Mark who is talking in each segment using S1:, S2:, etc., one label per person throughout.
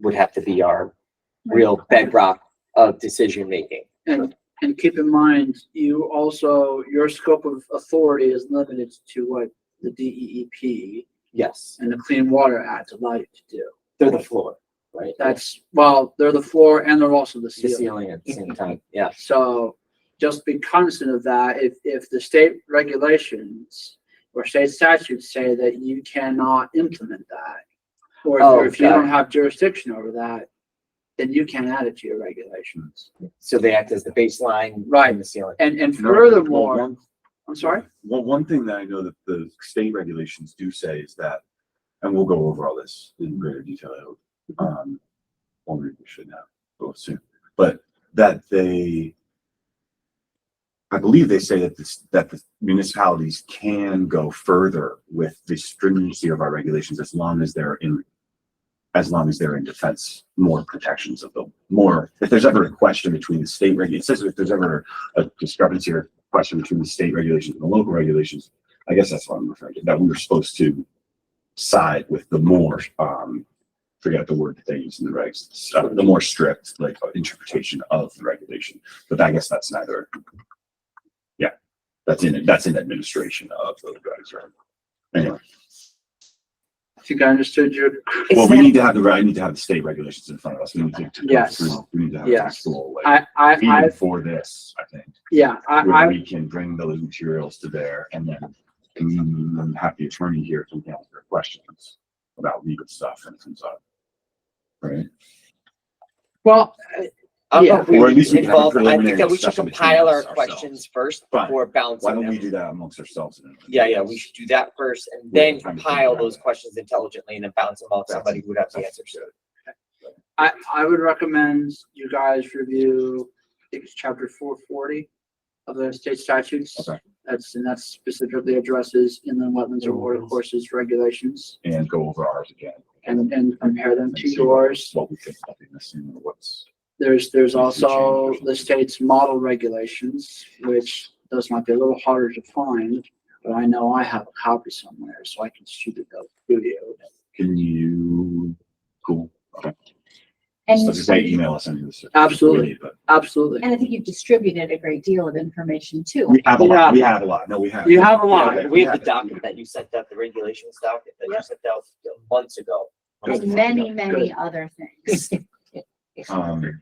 S1: would have to be our real bedrock of decision making.
S2: And, and keep in mind, you also, your scope of authority is limited to what the DEEP
S1: Yes,
S2: and the Clean Water Act allow you to do.
S1: they're the floor, right?
S2: That's, well, they're the floor and they're also the
S1: The
S2: ceiling.
S1: ceiling at the same time, yeah.
S2: So just be cognizant of that. If, if the state regulations or state statutes say that you cannot implement that, or if-
S1: Oh,
S2: or if you
S1: got
S2: don't have jurisdiction over that, then you can add it to your regulations.
S1: So they act as the baseline.
S2: Right.
S1: And the ceiling.
S2: And, and
S3: No, well,
S2: furthermore,
S3: one-
S2: I'm sorry?
S3: Well, one thing that I know that the state regulations do say is that, and we'll go over all this in greater detail, um, well, maybe we should now, oh, soon, but that they, I believe they say that this, that the municipalities can go further with the stringency of our regulations as long as they're in, as long as they're in defense, more protections of them, more, if there's ever a question between the state reg, it says if there's ever a discrepancy or question between the state regulations and the local regulations. I guess that's what I'm referring to, that we were supposed to side with the more, um, forget the word that they use in the regs, uh, the more strict, like, interpretation of the regulation. But I guess that's neither. Yeah, that's in, that's in administration of those regs, right? Anyway,
S2: I think I understood your
S3: well, we need to have the, I need to have the state regulations in front of us. We need to. to go
S2: Yes.
S3: through- We need to have
S2: Yes.
S3: this full, like,
S2: I, I, I,
S3: even for this, I think.
S2: yeah,
S3: where
S2: I,
S3: we can bring those materials to bear and then mm, have the attorney here to answer their questions about legal stuff and comes up. Right?
S2: well,
S1: I don't know
S2: Yeah.
S1: if we
S3: Or at least we can have a
S1: involve- I think
S3: preliminary
S1: that we should
S3: discussion between
S1: compile our
S3: us ourselves.
S1: questions first
S3: Fine.
S1: before
S3: Why
S1: bouncing
S3: don't we
S1: them.
S3: do that amongst ourselves? and then-
S1: Yeah, yeah, we should do that first and
S3: We have
S1: then
S3: time to
S1: compile
S3: figure out
S1: those
S3: that.
S1: questions intelligently and then bounce them off
S3: That's-
S1: somebody who would have the answers.
S2: I, I would recommend you guys review, I think it's chapter four forty of the state statutes.
S3: Okay.
S2: That's, and that specifically addresses inland wetlands or water courses regulations
S3: And go over ours again.
S2: and, and compare them
S3: And
S2: to
S3: see what-
S2: yours.
S3: What we think might be missing and what's.
S2: There's, there's
S3: If you
S2: also
S3: change.
S2: the state's model regulations, which those might be a little harder to find, but I know I have a copy somewhere, so I can shoot it up to you.
S3: Can you, cool. Okay. So
S4: And,
S3: just say email us any of this. if we
S2: Absolutely.
S3: need, but
S2: Absolutely.
S4: and I think you've distributed a great deal of information too.
S3: We have a lot, we have a lot. No, we have.
S2: You have a lot.
S3: Yeah,
S1: We have the
S3: it.
S1: document that you sent out, the regulations document that you sent out months ago.
S4: And many, many other things.
S3: Um.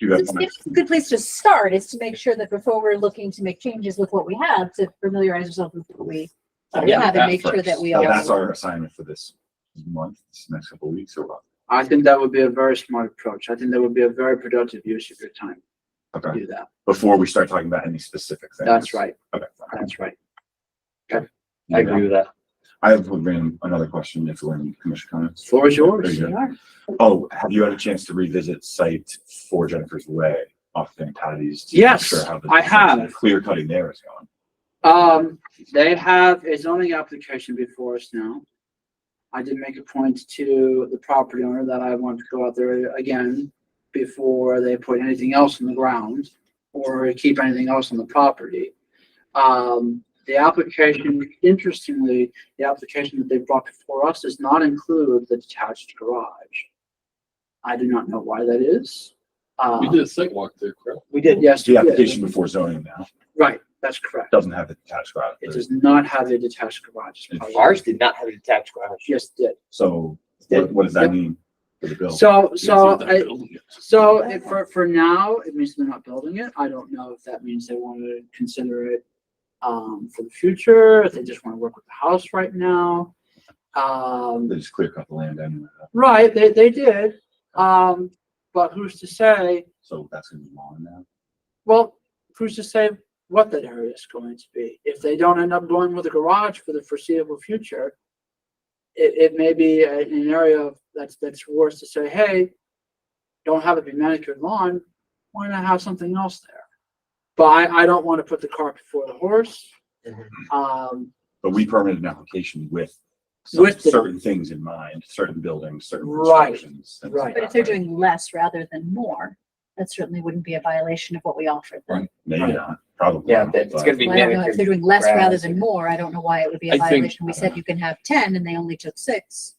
S3: Do you have?
S4: It's a good place to start is to make sure that before we're looking to make changes with what we have, to familiarize ourselves with what we
S3: Yeah,
S4: Yeah, to
S3: that
S4: make sure
S3: first.
S4: that we
S3: Yeah,
S4: all-
S3: That's our assignment for this month, this next couple of weeks uh, or what?
S2: I think that would be a very smart approach. I think that would be a very productive use of your time to
S3: Okay,
S2: do that.
S3: before we start talking about any specific things.
S2: That's right.
S3: Okay.
S2: That's right.
S1: I agree with that.
S3: I have one random- another question if we're in commission comments.
S2: Floor is
S3: There
S2: yours.
S3: you
S4: we are.
S3: go. Oh, have you had a chance to revisit site for Jennifer's Way off Van Patty's? to make
S2: Yes,
S3: sure how the-
S2: I have.
S3: Clear cutting there is going.
S2: Um, they have a zoning application before us now. I did make a point to the property owner that I want to go out there again before they put anything else in the ground or keep anything else on the property. Um, the application, interestingly, the application that they brought before us does not include the detached garage. I do not know why that is.
S5: We
S2: Uh,
S5: did a site walk there, correct?
S1: We did.
S2: yes,
S3: The
S2: yeah,
S3: application before zoning now
S2: right, that's correct.
S3: doesn't have the detached garage.
S2: It does not have a detached garage.
S1: Ours did not have a detached garage.
S2: Just did.
S3: So what, what does that mean for the bill?
S2: So,
S5: We haven't
S2: so,
S5: seen that
S2: I-
S5: building yet.
S2: so if for, for now, it means they're not building it. I don't know if that means they want to consider it um, for the future, if they just want to work with the house right now.
S3: They
S2: Um,
S3: just clear cut the land anyway.
S2: right, they, they did. Um, but who's to say,
S3: So that's gonna be long now.
S2: well, who's to say what that area is going to be? If they don't end up going with a garage for the foreseeable future, it, it may be a- an area that's, that's worse to say, hey, don't have it be manicured lawn, why not have something else there? But I, I don't want to put the cart before the horse. Um,
S3: But we permitted an application with some-
S2: With the-
S3: certain things in mind, certain buildings, certain
S2: Right,
S3: restrictions. things like
S2: right.
S4: But if
S3: that,
S4: they're
S3: right?
S4: doing less rather than more, that certainly wouldn't be a violation of what we offered them.
S3: Right, maybe
S1: Right.
S3: not, probably.
S1: Yeah,
S3: not,
S1: that- it's
S3: but-
S1: gonna be
S4: Well, I don't know, if
S1: manicured.
S4: they're doing less
S1: grass
S4: rather
S1: and-
S4: than more, I don't know why it would be a
S5: I think-
S4: violation. We said you can have ten and they only took six.